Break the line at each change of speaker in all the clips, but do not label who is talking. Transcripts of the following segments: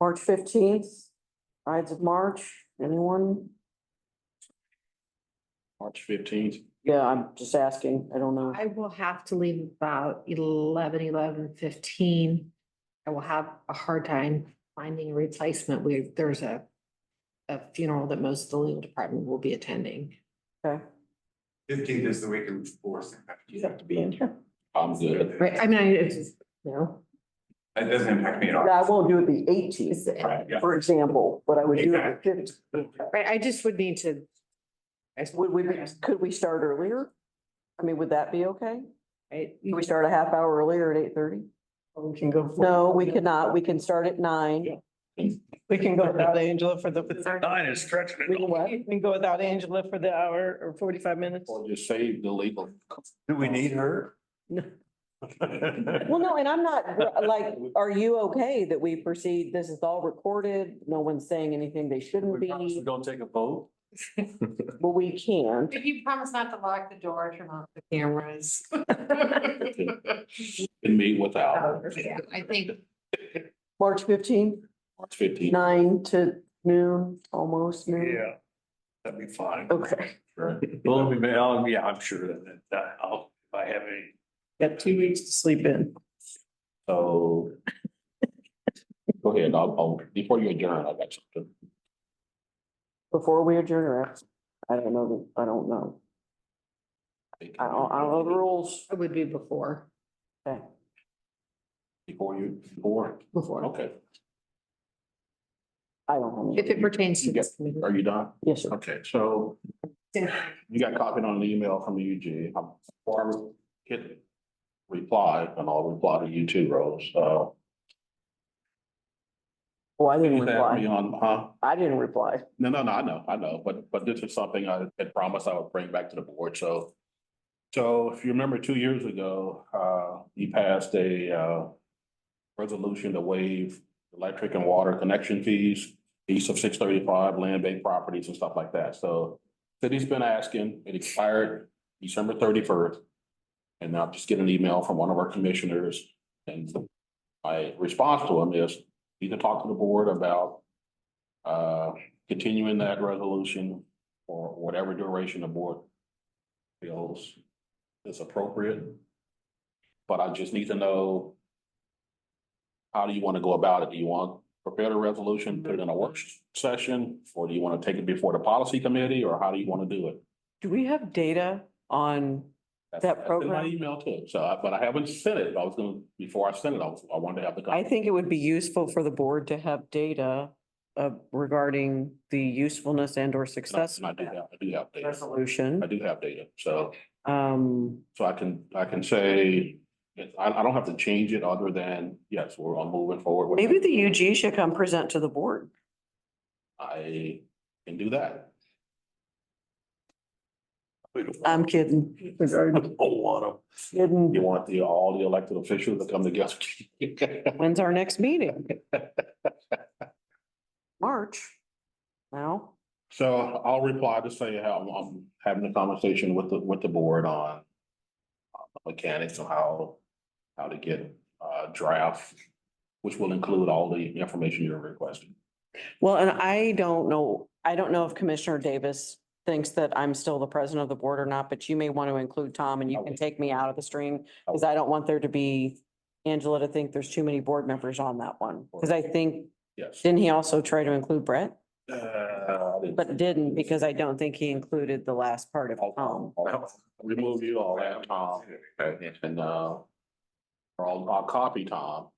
March fifteenth, Ides of March, anyone?
March fifteenth.
Yeah, I'm just asking, I don't know.
I will have to leave about eleven, eleven fifteen. I will have a hard time finding a replacement. We, there's a. A funeral that most of the legal department will be attending.
Okay,
Fifteenth is the weekend before. St.
you
Patrick's
have to be in here.
I'm good.
Right, I mean, I, it's, just, you know.
Day. It doesn't impact me at all.
Yeah, I won't do it the eighteenth,
it's-
Right, yeah.
for example, but I would do it the fifteenth.
Right, I just would need to. I just-
Would we, could we start earlier? I mean, would that be okay?
Right,
Can we start a half hour earlier at eight thirty?
we can go.
No, we cannot. We can start at nine.
We can go without Angela for the, we
is stretching
can what?
can go without Angela for the hour or forty-five minutes.
Or just save the legal.
Do we need her?
No.
Well, no, and I'm not, like, are you okay that we proceed? This is all recorded. No one's saying anything they shouldn't
We promise we
be.
don't take a vote.
Well, we can't.
If you promise not to lock the door, turn off the cameras.
Can meet without.
I think
March fifteenth,
March fifteenth.
nine to noon, almost noon.
that'd be fine.
Okay.
Well, we may- I'll- yeah, I'm sure that, that, I'll, if I have any,
Got two weeks to sleep in.
So. Go ahead, I'll, I'll, before you adjourn, I got something.
Before we adjourn or after? I don't know. I don't know. I don't, I don't know the rules.
it would be before,
Okay.
Before you, before,
before,
okay,
I don't know.
if it pertains to this. committee.
are you done?
Yes, sir.
Okay, so you got copied on an email from the UG. I'm- Barbara hit reply, and I'll reply to you too, Rose, uh.
Well, Oh, I didn't
you had me
reply.
on, huh?
I didn't reply.
No, no, no, I know, I know, but, but this is something I had promised I would bring back to the board, so. So if you remember, two years ago, uh, he passed a, uh, resolution to waive electric and water connection fees east of six thirty-five, land bank properties and stuff like that, so. City's been asking, it expired December thirty-first. And I'll just get an email from one of our commissioners, and my response to him is either talk to the board about uh, continuing that resolution for whatever duration the board feels is appropriate. But I just need to know how do you want to go about it? Do you want to prepare the resolution, put it in a work session, or do you want to take it before the policy committee, or how do you want to do it?
Do we have data on? That
That's- that's in
program?
My email too, so, I- but I haven't sent it. I was gonna, before I sent it, I was, I wanted to have the.
I think it would be useful for the board to have data uh regarding the usefulness and or
And I-
success
and I do have, I do have data. I
resolution.
do have data, so.
Um,
So I can, I can say, I, I don't have to change it other than, yes, we're on moving forward. with
maybe
it.
the UG should come present to the board.
I can do that.
I'm kidding.
don't want to. You
Kidding.
want the, all the elected officials to come together?
When's our next meeting? March.
Now,
So I'll reply to say how I'm having a conversation with the, with the board on uh, mechanics on how, how to get, uh, draft, which will include all the information you're requesting.
Well, and I don't know, I don't know if Commissioner Davis thinks that I'm still the president of the board or not, but you may want to include Tom and you
Okay.
can take me out of the stream. Cause I don't want there to be Angela to think there's too many board members on that one. Cause I think,
Yes.
didn't he also try to include Brett?
Uh, I didn't-
But didn't because I don't think he included the last part of
I'll-
Tom.
I'll- I'll Remove you all that, Tom, and, uh, or I'll, I'll copy Tom.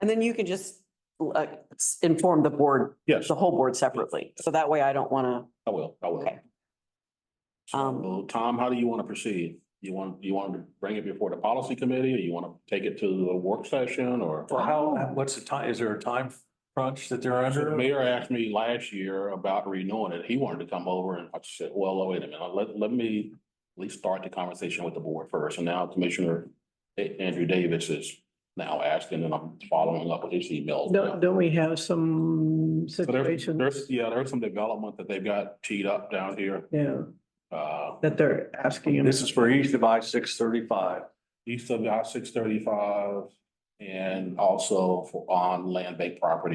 And then you can just uh, s- inform the board,
Yes,
the whole board separately. So that way I don't want to.
I will, I will.
Okay.
So,
Um,
Tom, how do you want to proceed? You want, you want to bring it before the policy committee, or you want to take it to a work session, or?
Well, how, Uh, what's the time, is there a time crunch that they're
So The
under?
mayor asked me last year about renewing it. He wanted to come over and I said, well, wait a minute, let, let me at least start the conversation with the board first. And now Commissioner A- Andrew Davis is now asking and I'm following up with his emails. now.
Don't, don't we have some
So there's,
situations?
there's, yeah, there's some development that they've got teed up down here,
Yeah,
uh,
that they're asking him.
This is for each device, six thirty-five.
east of I six thirty-five and also for on land bank property